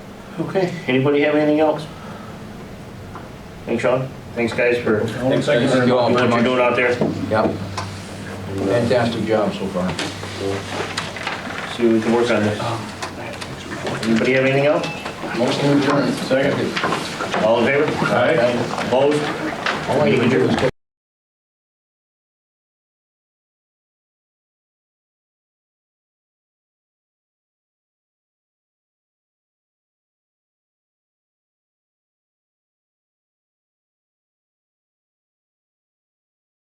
Okay, anybody have anything else? Thanks, Sean. Thanks, guys, for Thanks, thank you very Thank you all what very you're doing much. out there. Yep. Fantastic job so far. See what we can work on this. Anybody have anything else? Motion adjourned. Second. All in favor? All right. Opposed? All I can do is take